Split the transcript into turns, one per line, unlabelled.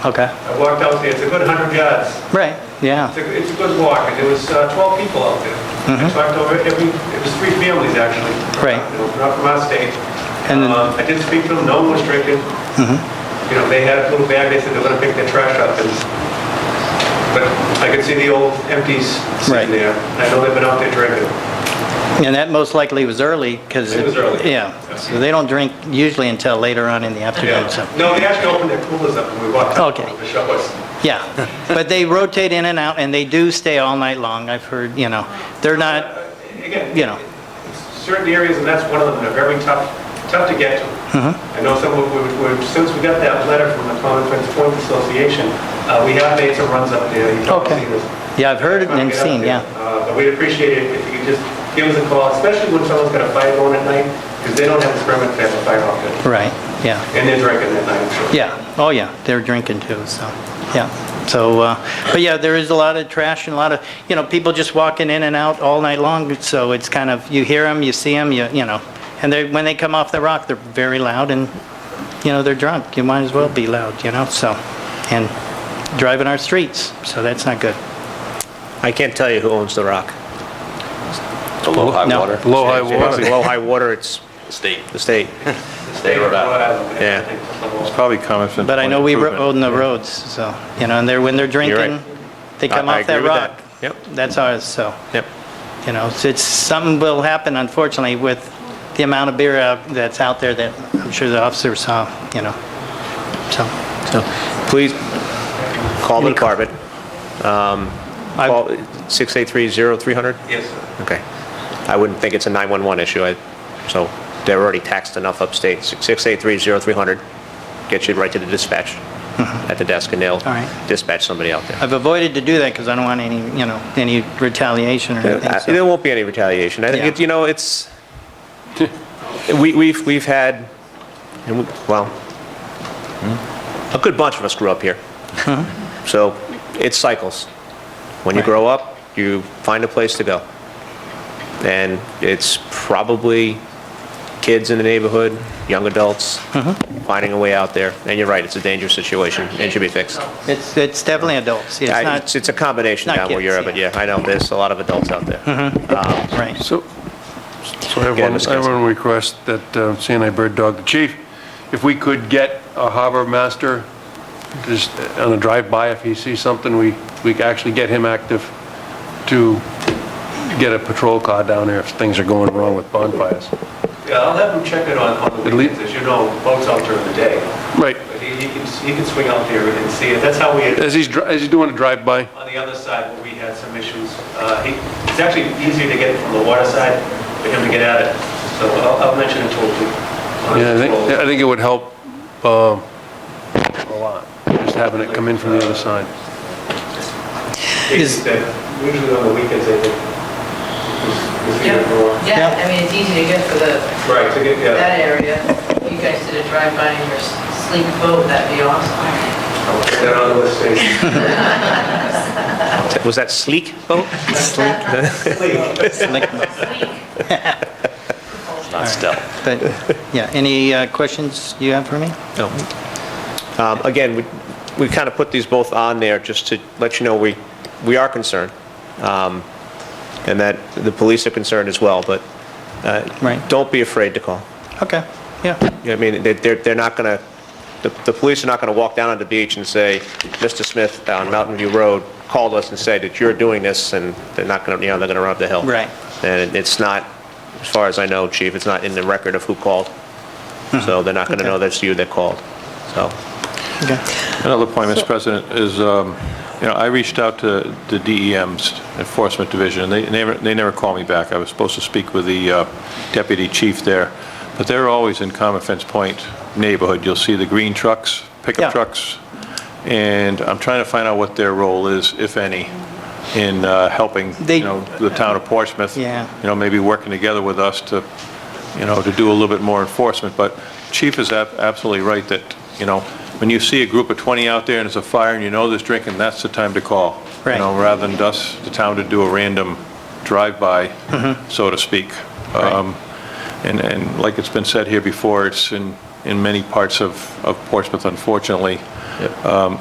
Okay,
I walked out there, it's a good 100 yards.
right, yeah,
It's a, it's a good walk, and there was uh, 12 people out there. I talked over every, it was three families, actually.
Mm-hmm. Right.
You know, Not from our state.
And then- Mm-hmm.
Um, I did speak to them, no one was drinking. You know, they had a little bag, they said they're gonna pick their trash up, and, but I could see the old empties
Right.
sitting there. and I know they've been out there drinking.
and that most likely was early, because...
It was early.
Yeah, so they don't drink usually until later on in the
Yeah.
afternoon, so...
No, they actually opened their coolers up when we walked out.
Okay.
The shop was,
Yeah, but they rotate in and out, and they do stay all night long, I've heard, you know. They're not,
Uh, again.
You know.
Certain areas, and that's one of them, are very tough, tough to get to.
Mm-hmm.
I know some, of- we- we- since we got that letter from the Common Friends Point Association, uh, we have made some runs up there. You've probably
Okay.
seen this.
yeah, I've heard it
Trying
and
to get up
seen,
there.
yeah.
Uh, But we'd appreciate it if you could just give us a call, especially when someone's got a fire going at night, because they don't have a permit to have a fire outfit,
Right, yeah,
and they're drinking at night. so.
yeah, oh yeah, they're drinking too, so, yeah. So, uh, but yeah, there is a lot of trash and a lot of, you know, people just walking in and out all night long, so it's kind of, you hear them, you see them, you, you know. And they, when they come off the rock, they're very loud and, you know, they're drunk, you might as well be loud, you know, so. And driving our streets, so that's not good.
I can't tell you who owns the rock.
The low high
No.
water.
Low high water. Low high water, it's
State.
the state.
State of Rhode Island.
Yeah.
Yeah.
Probably comments from...
But I know we
improvement.
own the roads, so, you know, and they're, when they're
right.
drinking, they come
I- I
off that
agree with that.
rock.
Yep.
That's ours, so,
Yep.
you know, it's- it's, something will happen unfortunately with the amount of beer out- that's out there that I'm sure the officer saw, you know, so.
So please call the
Any co-
department. Um,
I-
Call 683-0300?
Yes, sir.
Okay. I wouldn't think it's a 911 issue, I- so they're already taxed enough upstate. Six- 683-0300 gets you right to the dispatch at the desk, and they'll
Mm-hmm. All right.
dispatch somebody out there.
I've avoided to do that because I don't want any, you know, any retaliation or anything,
Uh,
so.
There won't be any retaliation. I think,
Yeah.
it- you know, it's, we- we've, we've had, and we- well, a good bunch of us grew up here. So it's cycles. When you grow up, you find a place to go. And it's probably kids in the neighborhood, young adults,
Uh-huh.
finding a way out there. And you're right, it's a dangerous situation and should be fixed.
It's, it's definitely adults, it's
I-
not,
It's it's a combination
not
down where
kids,
you're at, but
yeah. Hmm.
yeah, I know, there's a lot of adults out there.
right.
So, so I have
Yeah,
one,
Mr.
I have
Gasko.
one request that uh, CNI Bird Dog, the chief, if we could get a harbor master, just on a drive-by, if he sees something, we, we could actually get him active to get a patrol car down there if things are going wrong with bonfires.
Yeah, I'll have him check it on, on the
At least-
weekends, as you know, boats out during the day.
Right,
But he, he can, he can swing out there and see it. That's how we, had-
as he's, dri- as he's doing a drive-by,
on the other side, where we had some issues, uh, he, it's actually easier to get from the water side for him to get at it. So I'll, I'll mention it to him.
yeah, I think, I think it would help um, a lot, just having it come in from the other side.
Is-
Usually on the weekends, I think. is- is
Yeah,
the overall-
yeah, I mean, it's easy to get for the,
Right, to get, yeah.
that area. You guys did a drive-by in your sleek boat, that'd be awesome.
I'll put that on the list, too.
Was that sleek boat?
Not stealth.
But, yeah, any uh, questions you have for me?
No. Um, Again, we we kind of put these both on there just to let you know we we are concerned, um, and that the police are concerned as well, but uh,
Right.
don't be afraid to call.
Okay, yeah,
You know what I mean, They- they're they're not going to, the the police are not going to walk down on the beach and say, "Mr. Smith uh, on Mountain View Road called us and said that you're doing this," and they're not going to, you know, they're going to run up the hill.
Right.
And it's not, as far as I know, Chief, it's not in the record of who called, so they're not going
Mm-hmm.
to
Okay.
know that's you that called, so.
okay.
Another point,
So-
Mr. President, is, um, you know, I reached out to the DEM's Enforcement Division, and they never, they never called me back. I was supposed to speak with the uh, deputy chief there, but they're always in Common Fence Point neighborhood. You'll see the green trucks,
Yeah.
pickup trucks, and I'm trying to find out what their role is, if any, in uh, helping,
They-
you know, the town of Portsmouth.
Yeah.
You know, maybe working together with us to, you know, to do a little bit more enforcement. But Chief is ab- absolutely right that, you know, when you see a group of 20 out there and it's a fire and you know there's drinking, that's the time to call.
Right.
You know, rather than us, the town to do a random drive-by, so to speak. Um, And, and like it's been said here before, it's in, in many parts of, of Portsmouth, unfortunately. Um,